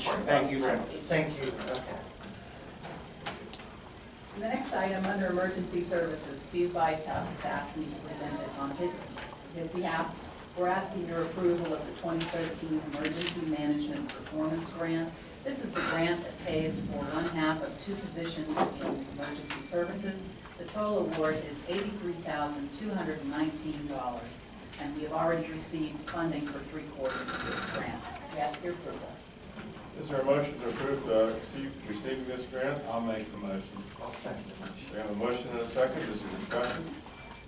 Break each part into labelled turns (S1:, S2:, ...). S1: Thank you, very much. thank you, okay.
S2: And the next item, under emergency services, Steve Bicehouse has asked me to present this on his, his behalf. We're asking your approval of the 2013 Emergency Management Performance Grant. This is the grant that pays for one half of two positions in emergency services. The total award is $83,219, and we have already received funding for three quarters of this grant. We ask your approval.
S3: Is there a motion to approve uh, receive- receiving this grant? I'll make the motion.
S1: I'll second the motion.
S3: We have a motion and a second, is there discussion?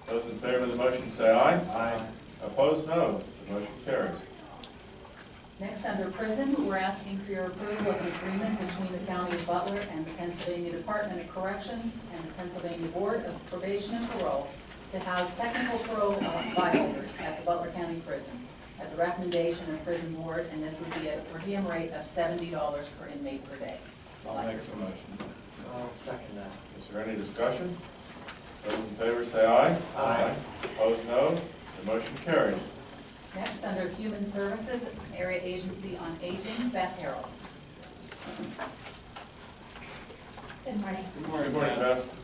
S3: Those in favor of the motion say aye.
S1: Aye.
S3: Opposed, no. The motion carries.
S2: Next, under prison, we're asking for your approval of an agreement between the County of Butler and the Pennsylvania Department of Corrections and the Pennsylvania Board of Probation and Parole to house technical parole violators at the Butler County Prison at the recommendation of prison board, and this would be at a per diem rate of seventy dollars per inmate per day.
S3: I'll make the motion.
S1: I'll second that.
S3: Is there any discussion? Those in favor say aye.
S1: Aye.
S3: Opposed, no. The motion carries.
S2: Next, under Human Services, Area Agency on Aging, Beth Harold.
S4: Good morning.
S3: Good morning. Good morning, Beth.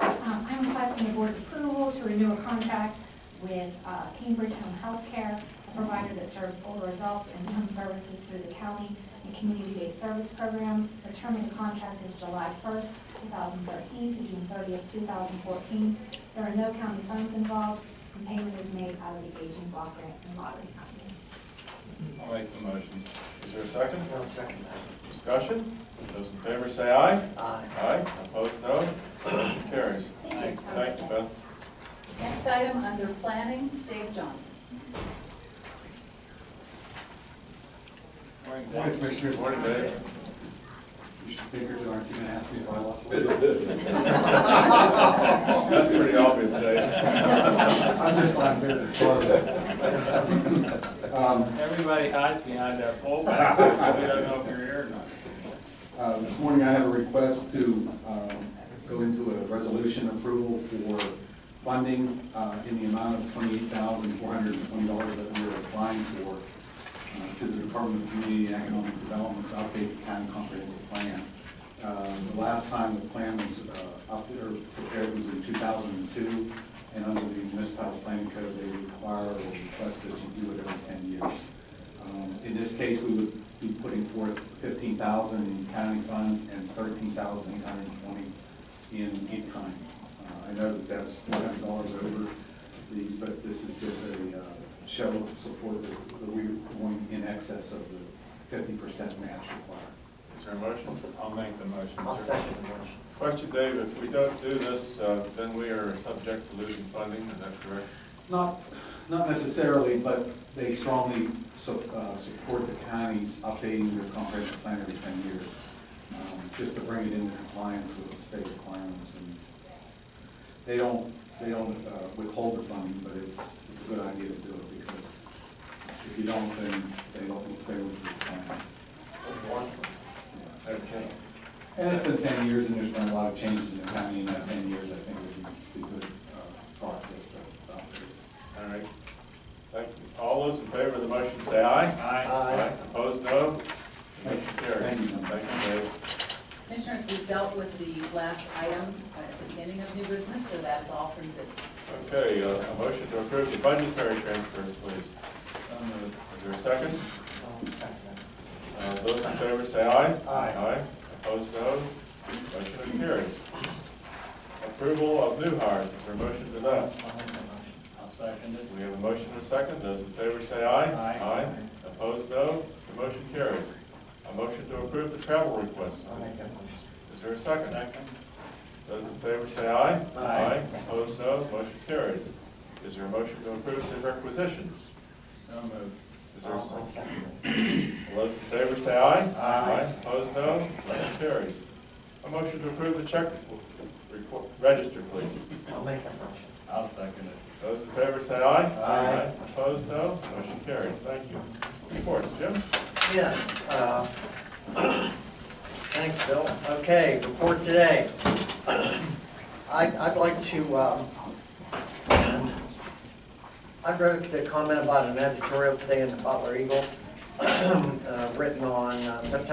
S4: Um, I'm requesting the board's approval to renew a contract with uh, Cambridge Home Health Care, a provider that serves older adults and home services through the county and community-based service programs. The term of the contract is July 1st, 2013 to June 30th, 2014. There are no county funds involved, and payment is made out of the aging block grant and lottery funds.
S3: I'll make the motion. Is there a second?
S1: I'll second that.
S3: Discussion? Those in favor say aye.
S1: Aye.
S3: Aye. Opposed, no. The motion carries.
S4: Thank you.
S3: Thank you, Beth.
S2: Next item, under Planning, Dave Johnson.
S5: Morning, Commissioners.
S3: Morning, Dave.
S5: You should figure, aren't you gonna ask me if I lost weight?
S3: That's pretty obvious, Dave.
S5: I'm just not here to close. Um,
S6: Everybody hides behind that pole back there, so we don't know if you're here or not.
S5: uh, This morning, I have a request to um, go into a resolution approval for funding uh, in the amount of $28,420 that we are applying for uh, to the Department of Community and Economic Development's updated county comprehensive plan. Um, The last time the plan was uh, up there, prepared was in 2002, and under the municipal planning code, they require or request that you do it every 10 years. Um, In this case, we would be putting forth 15,000 in county funds and 13,820 in in-kind. Uh, I know that that's $400 over, the but this is just a uh, show of support that that we're going in excess of the 50% match required.
S3: Is there a motion?
S6: I'll make the motion.
S1: I'll second the motion.
S3: Question, Dave, if we don't do this, uh, then we are subject to losing funding, is that correct?
S5: Not, not necessarily, but they strongly su- uh, support the counties updating their comprehensive plan every ten years, um, just to bring it into compliance with the state requirements. And They don't, they don't uh, withhold the funding, but it's, it's a good idea to do it, because if you don't, then they don't, they won't respond.
S3: Okay.
S5: And it's been ten years, and there's been a lot of changes in the county in that ten years, I think it would be a good uh, process to adopt it.
S3: All right. Thank you. All those in favor of the motion say aye.
S6: Aye.
S1: Aye.
S3: Opposed, no. Motion carries.
S5: Thank you.
S3: Thank you, Dave.
S2: Commissioners, we've dealt with the last item at the beginning of new business, so that is all for new business.
S3: Okay, uh, a motion to approve the budgetary transfers, please. Is there a second?
S1: I'll second that.
S3: Uh, Those in favor say aye.
S1: Aye.
S3: Aye. Opposed, no. Motion carries. Approval of new hires, is there a motion to that?
S1: I'll make that motion.
S6: I'll second it.
S3: We have a motion and a second, those in favor say aye.
S6: Aye.
S3: Opposed, no, the motion carries. A motion to approve the travel request.
S1: I'll make that motion.
S3: Is there a second?
S6: Second?
S3: Those in favor say aye.
S6: Aye.
S3: Opposed, no, motion carries. Is there a motion to approve the requisitions?
S6: So moved.
S3: Is there a
S1: I'll
S3: second?
S1: second that.
S3: All those in favor say aye.
S1: Aye.
S3: Opposed, no, motion carries. A motion to approve the check requ- register, please.
S1: I'll make that motion.
S6: I'll second it.
S3: Those in favor say aye.
S1: Aye.
S3: Opposed, no, motion carries, thank you. Reports, Jim?
S1: Yes. uh, Thanks, Bill. Okay, report today. I- I'd like to, um, I wrote the comment about an editorial today in the Butler Eagle, uh, written on uh, September